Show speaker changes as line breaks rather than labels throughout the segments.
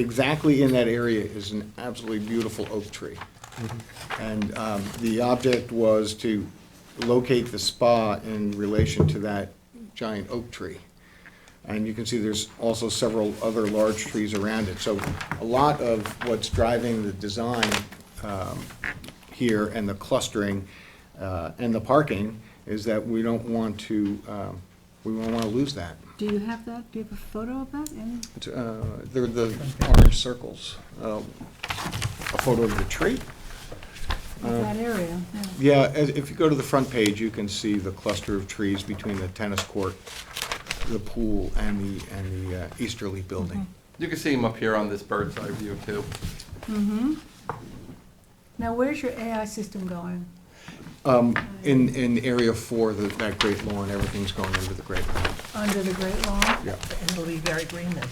exactly in that area is an absolutely beautiful oak tree. And um, the object was to locate the spa in relation to that giant oak tree. And you can see there's also several other large trees around it. So a lot of what's driving the design um, here and the clustering uh, and the parking is that we don't want to, um, we don't want to lose that.
Do you have that? Do you have a photo of that? Any-
It's, uh, They're the orange circles. Uh, A photo of the tree?
Of that area? yeah.
Yeah, as- if you go to the front page, you can see the cluster of trees between the tennis court, the pool, and the, and the uh, easterly building.
You can see him up here on this bird's eye view too.
Now, where's your AI system going?
In, in area four, the- that great lawn, everything's going into the great lawn.
Under the Great Lawn?
Yeah.
And it'll be very green then.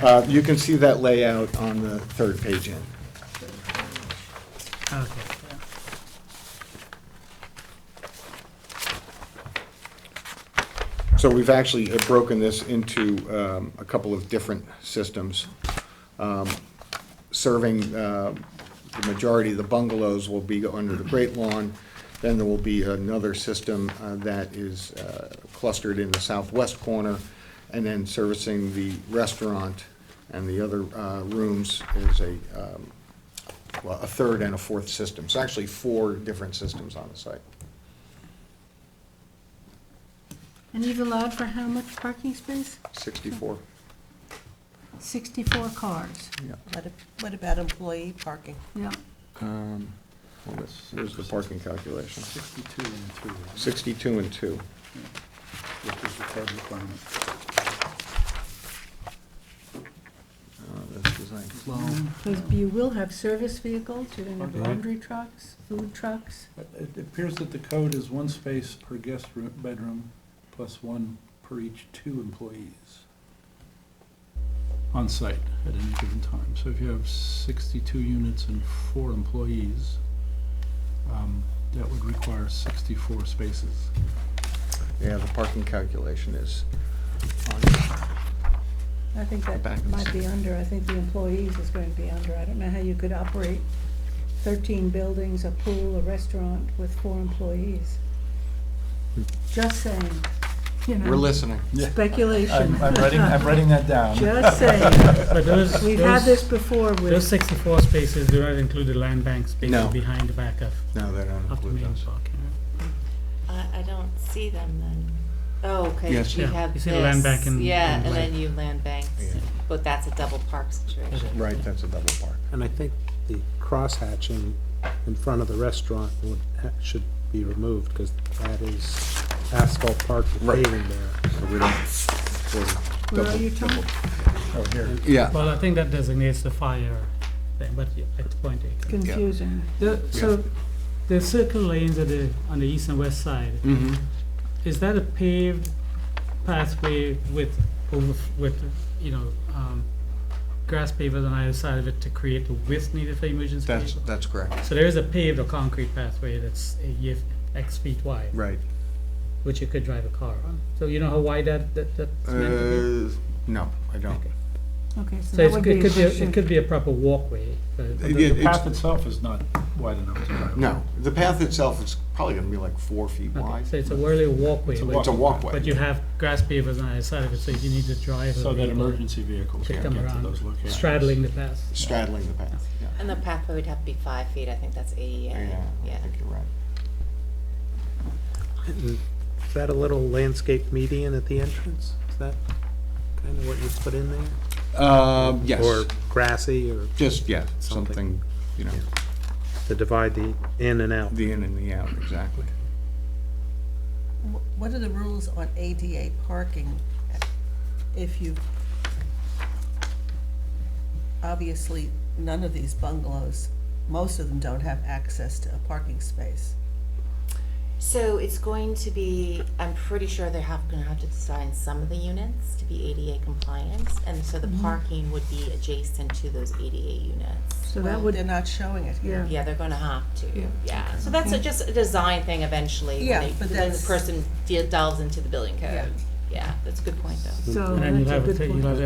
Uh, You can see that layout on the third page in.
Okay.
So we've actually uh, broken this into um, a couple of different systems. Um, Serving uh, the majority of the bungalows will be under the Great Lawn. Then there will be another system uh, that is uh, clustered in the southwest corner. And then servicing the restaurant and the other uh, rooms is a, um, well, a third and a fourth system. So actually four different systems on the site.
And you've allowed for how much parking space?
64,
Sixty-four cars.
yeah.
What ab- What about employee parking?
Yeah.
Um, well, that's- Here's the parking calculation.
Sixty-two and three, right?
Sixty-two and two.
which is the code requirement.
Uh, that's design.
Because you will have service vehicles, you're gonna have
Okay.
laundry trucks, food trucks.
It appears that the code is one space per guest room, bedroom, plus one per each two employees on site at any given time. So if you have sixty-two units and four employees, um, that would require sixty-four spaces.
Yeah, the parking calculation is,
I think that
Back and
might be under, I think the employees is going to be under. I don't know how you could operate thirteen buildings, a pool, a restaurant with four employees. Just saying, you know.
We're listening.
Speculation.
I'm, I'm writing, I'm writing that down.
Just saying.
But those,
We've had
those,
this before
those
with,
sixty-four spaces do not include the land bank
No.
spaces behind the back of,
no, they don't
of the
include
main
those.
park.
I, I don't see them then. Oh,
Yes.
because you
Yeah,
have
you
this.
see the land bank and-
Yeah,
and
and
land.
then you land banks,
Yeah.
but that's a double park situation.
Right, that's a double park.
And I think the crosshatching in front of the restaurant would, ha- should be removed, because that is asphalt park with
Right.
paving there.
So we don't. for
where are
double-
you, Tom?
Oh, here.
Yeah,
Well, I think that designates the fire thing, but yeah, at point eight.
Confusing.
The, so, the circle lanes at the, on the east and west side,
mm-hmm,
is that a paved pathway with, over, with, you know, um, grass pavers on either side of it to create the width needed for emergency
that's,
vehicles?
that's correct.
So there is a paved or concrete pathway that's a y- X feet wide.
Right.
which you could drive a car on. So you know how wide that, that, that's meant to be?
Uh, no, I don't.
Okay.
Okay, so
So
that
it's,
would
it
be a
could be, a-
question.
it could be a proper walkway. but-
It-
The
it-
the
it's-
path itself is not wide enough to drive.
No, the path itself is probably gonna be like four feet
Okay,
wide.
So it's a really walkway,
It's a
but,
It's a
but
walkway.
you have grass pavers on either side of it, so if you need to drive
So
a
that
vehicle
emergency vehicles
to
can
come
get to
around,
those locations.
straddling the path.
Straddling the path, yeah.
And the pathway would have to be five feet, I think that's ADA,
Yeah, I
yeah.
think you're right.
And Is that a little landscape median at the entrance? Is that kind of what you put in there?
Um,
Or
yes,
grassy, or
just, yeah,
Something.
something, you know,
to divide the in and out?
the in and the out, exactly.
Wh- What are the rules on ADA parking if you, obviously, none of these bungalows, most of them don't have access to a parking space.
So it's going to be, I'm pretty sure they're have, gonna have to design some of the units to be ADA compliant, and so the parking would be adjacent to those ADA units.
So that
Well,
would,
They're not showing it here.
Yeah.
Yeah, they're gonna have to, yeah. So that's a- just a design thing eventually. when
Yeah,
they-
but
when
that's-
the person de- delves into the building
Yeah.
code. Yeah, that's a good point though.
so
And then you'll
that's a
have, a
good
ta-
point.
you'll have